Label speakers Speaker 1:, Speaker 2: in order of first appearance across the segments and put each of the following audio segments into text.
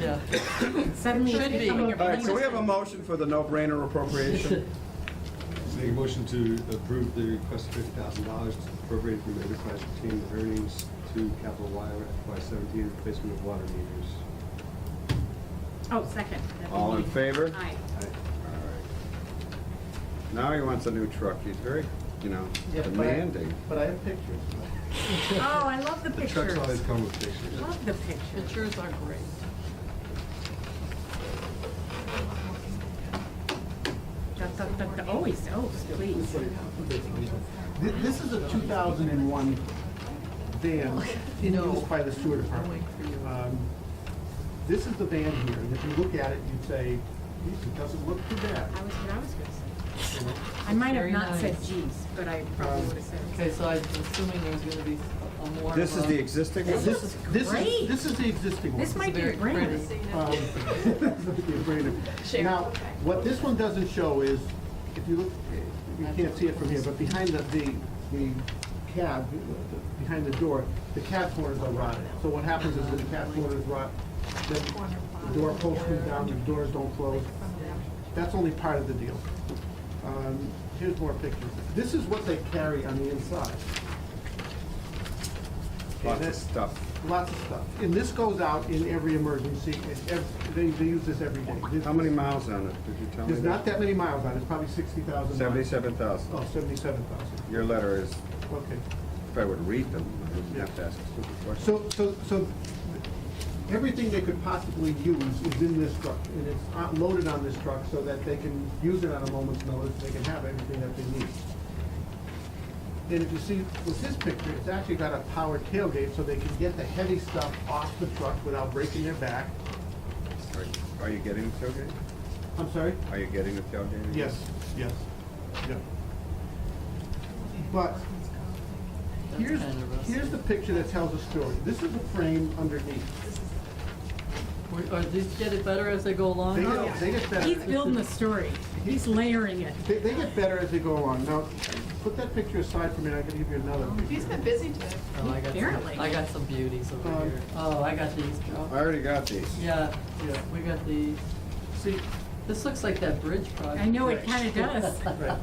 Speaker 1: Yeah.
Speaker 2: Suddenly it's
Speaker 1: Should be.
Speaker 2: becoming a...
Speaker 3: All right, so we have a motion for the no-brainer appropriation.
Speaker 4: Make a motion to approve the request of fifty thousand dollars appropriated from enterprise retained earnings to capital wire FY seventeen replacement of water meters.
Speaker 2: Oh, second. That'd be
Speaker 3: All in
Speaker 2: me.
Speaker 3: favor?
Speaker 2: Aye.
Speaker 4: Aye.
Speaker 3: Alright. Now he wants a new truck. He's very, you know,
Speaker 5: Yeah, but I-
Speaker 3: demanding.
Speaker 5: But I have pictures.
Speaker 2: Oh, I love the
Speaker 4: The
Speaker 2: pictures.
Speaker 4: trucks always come with pictures.
Speaker 2: Love the pictures.
Speaker 1: Pictures are great.
Speaker 2: Da, da, da, da. Always, oh, please.
Speaker 5: Th- This is a 2001 van in
Speaker 1: No.
Speaker 5: use by the sewer department.
Speaker 1: I'm waiting for you.
Speaker 5: Um, This is the van here, and if you look at it, you'd say, "Geez, it doesn't look too bad.
Speaker 2: I was, what I was gonna
Speaker 5: you know?
Speaker 2: say. I might have
Speaker 1: Very
Speaker 2: not said
Speaker 1: nice.
Speaker 2: geez, but I probably
Speaker 5: Um,
Speaker 2: would have said.
Speaker 1: Okay, so I'm assuming there's gonna be a more.
Speaker 3: This is
Speaker 1: of
Speaker 3: the
Speaker 1: a-
Speaker 3: existing
Speaker 2: This
Speaker 3: one?
Speaker 2: is-
Speaker 5: This
Speaker 2: great.
Speaker 5: This is the existing one.
Speaker 2: This might be a
Speaker 1: very
Speaker 2: brainer.
Speaker 1: pretty.
Speaker 5: Um, Now, what this one doesn't show is, if you look, you can't see it from here, but behind the, the, the cab, the- behind the door, the cab corners are rotted. So what happens is when the cab corners rot, then the door posts come down, the doors don't close. That's only part of the deal. Um, Here's more pictures. This is what they carry on the inside. Okay,
Speaker 3: Lots of
Speaker 5: that's-
Speaker 3: stuff.
Speaker 5: Lots of stuff. And this goes out in every emergency. It's ev- They, they use this every day. This-
Speaker 3: How many miles on it? Did you tell me?
Speaker 5: There's not that many miles on it. It's probably 60,000. miles.
Speaker 3: Seventy-seven
Speaker 5: Oh,
Speaker 3: thousand.
Speaker 5: 77,000.
Speaker 3: Your letter is,
Speaker 5: Okay.
Speaker 3: if I would read them, I wouldn't have to ask a stupid question.
Speaker 5: So, so, so everything they could possibly use is in this truck. And it's on- loaded on this truck so that they can use it on a moment's notice. They can have everything that they need. And if you see with this picture, it's actually got a power tailgate so they can get the heavy stuff off the truck without breaking their back.
Speaker 3: Are- Are you getting the tailgate?
Speaker 5: I'm sorry?
Speaker 3: Are you getting the tailgate?
Speaker 5: Yes, yes, yeah. But
Speaker 1: That's
Speaker 5: here's,
Speaker 1: kind of rusty.
Speaker 5: here's the picture that tells a story. This is the frame underneath.
Speaker 1: Wait, Are these getting better as they go along? Oh,
Speaker 5: They get, they get better.
Speaker 2: He's building the story. He's layering it.
Speaker 5: They, they get better as they go along. Now, put that picture aside for me, and I can give you another
Speaker 6: He's
Speaker 5: picture.
Speaker 6: been busy today.
Speaker 1: Oh, I got
Speaker 2: Apparently.
Speaker 1: some, I got some beauties over
Speaker 5: Um,
Speaker 1: here. Oh, I got these, Joe.
Speaker 3: I already got these.
Speaker 1: Yeah,
Speaker 5: Yeah.
Speaker 1: we got these.
Speaker 5: See,
Speaker 1: This looks like that bridge project.
Speaker 2: I know it kinda does.
Speaker 5: right,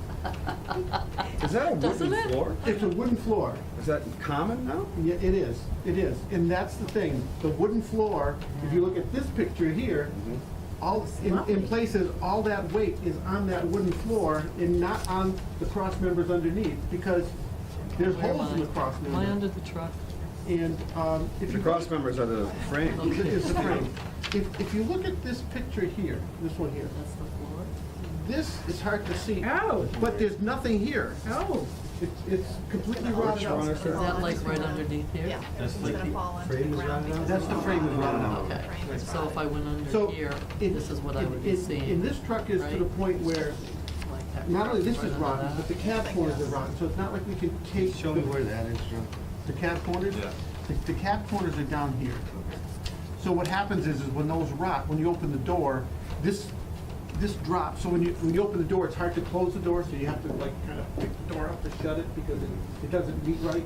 Speaker 3: Is that a wooden
Speaker 1: Doesn't it?
Speaker 3: floor?
Speaker 5: it's a wooden floor.
Speaker 3: Is that common now?
Speaker 5: Yeah, it is, it is. And that's the thing, the wooden floor, if you look at this picture here,
Speaker 1: Mm-hmm.
Speaker 5: all, in, in
Speaker 2: Lovely.
Speaker 5: places, all that weight is on that wooden floor and not on the cross members underneath, because there's
Speaker 1: Where am
Speaker 5: holes in
Speaker 1: I?
Speaker 5: the cross
Speaker 1: Am I under
Speaker 5: member.
Speaker 1: the truck?
Speaker 5: And, um, if you.
Speaker 3: The cross members are the frame.
Speaker 5: It's the frame. If, if you look at this picture here, this one here,
Speaker 1: That's the floor?
Speaker 5: this is hard to see,
Speaker 2: Oh,
Speaker 5: but there's nothing here.
Speaker 2: oh,
Speaker 5: It's, it's completely
Speaker 1: Oh,
Speaker 5: rotted
Speaker 3: one
Speaker 5: out.
Speaker 3: is
Speaker 1: Is that like right underneath here?
Speaker 6: Yeah.
Speaker 4: That's
Speaker 6: It's
Speaker 4: like
Speaker 6: gonna
Speaker 4: the
Speaker 6: fall onto
Speaker 4: frame is
Speaker 6: ground
Speaker 4: rounded out?
Speaker 6: because
Speaker 5: That's the frame is rounded out.
Speaker 1: Okay,
Speaker 6: Frame is
Speaker 1: so if I
Speaker 6: rounded.
Speaker 1: went
Speaker 5: So.
Speaker 1: under here,
Speaker 5: in-
Speaker 1: this is what I
Speaker 5: in-
Speaker 1: would be
Speaker 5: in-
Speaker 1: seeing.
Speaker 5: In this truck is to the
Speaker 1: right?
Speaker 5: point where
Speaker 1: Like that
Speaker 5: Not only
Speaker 1: truck
Speaker 5: this
Speaker 1: right
Speaker 5: is
Speaker 1: under
Speaker 5: rotten,
Speaker 1: that.
Speaker 5: but the cab corners are rotten, so it's not like we can take.
Speaker 4: Show me where that is, Joe.
Speaker 5: The cab corners?
Speaker 4: Yeah.
Speaker 5: The, the cab corners are down here. So what happens is, is when those rot, when you open the door, this, this drops, so when you, when you open the door, it's hard to close the door, so you have to like kind of pick the door up to shut it because it, it doesn't meet right.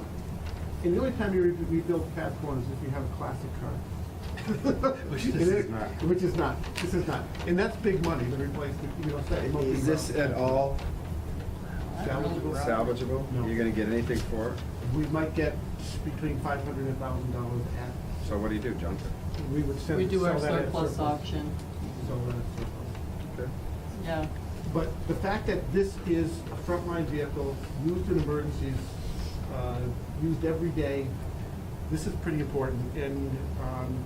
Speaker 5: And the only time you re- rebuild cab corners is if you have a classic car.
Speaker 4: Which this
Speaker 5: And it-
Speaker 4: is not.
Speaker 5: Which is not, this is not, and that's big money to replace, the- you know, say. it won't be
Speaker 3: Is this
Speaker 4: uh,
Speaker 5: round.
Speaker 3: at all
Speaker 5: Salvageable?
Speaker 3: salvageable?
Speaker 5: No.
Speaker 3: You're gonna get anything for it?
Speaker 5: We might get between five hundred and thousand dollars at,
Speaker 3: So what do you do, junk it?
Speaker 5: we would send,
Speaker 1: We do
Speaker 5: sell
Speaker 1: our
Speaker 5: that at
Speaker 1: surplus auction,
Speaker 5: Sell that at surplus.
Speaker 3: Okay.
Speaker 1: yeah.
Speaker 5: But the fact that this is a frontline vehicle, used in emergencies, uh, used every day, this is pretty important. And, um,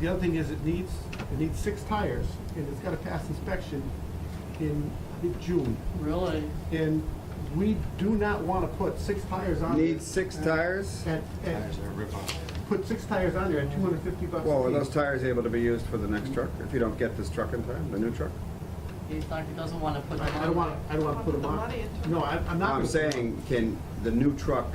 Speaker 5: the other thing is it needs, it needs six tires and it's gotta pass inspection in, I think, June.
Speaker 1: Really?
Speaker 5: And we do not wanna put six tires on.
Speaker 3: Need
Speaker 5: this
Speaker 3: six
Speaker 5: at-
Speaker 3: tires?
Speaker 5: At, at
Speaker 4: Tires are a rip-off.
Speaker 5: put six tires on there at two hundred fifty bucks.
Speaker 3: Well,
Speaker 5: a
Speaker 3: are
Speaker 5: piece.
Speaker 3: those tires able to be used for the next truck, if you don't get this truck in time, the new truck?
Speaker 1: He's not, he doesn't wanna put them on.
Speaker 5: I I don't want, I don't want to put them
Speaker 6: Put the money
Speaker 5: on.
Speaker 6: into it.
Speaker 5: No, I- I'm not.
Speaker 3: I'm
Speaker 5: gonna put them
Speaker 3: saying, can the new truck,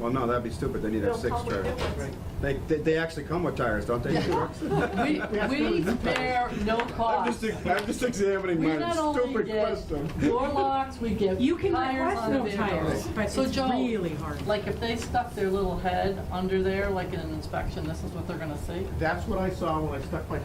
Speaker 3: well, no, that'd be stupid, they need to have
Speaker 6: They'll
Speaker 3: six
Speaker 6: probably
Speaker 3: tires.
Speaker 6: do it.
Speaker 5: on. Right.
Speaker 3: They, they- they actually come with tires, don't they? new trucks?
Speaker 1: We, we bear no
Speaker 3: I'm
Speaker 1: cost.
Speaker 3: just, I'm just examining
Speaker 1: We
Speaker 3: my
Speaker 1: not only
Speaker 3: stupid
Speaker 1: get
Speaker 3: question.
Speaker 1: door locks, we get
Speaker 2: you can
Speaker 1: tires
Speaker 2: request
Speaker 1: on
Speaker 2: no
Speaker 1: vehicles.
Speaker 2: tires, but
Speaker 1: So
Speaker 2: it's
Speaker 1: Joe,
Speaker 2: really hard.
Speaker 1: Like if they stuck their little head under there, like in an inspection, this is what they're gonna see?
Speaker 5: That's what I saw when I stuck my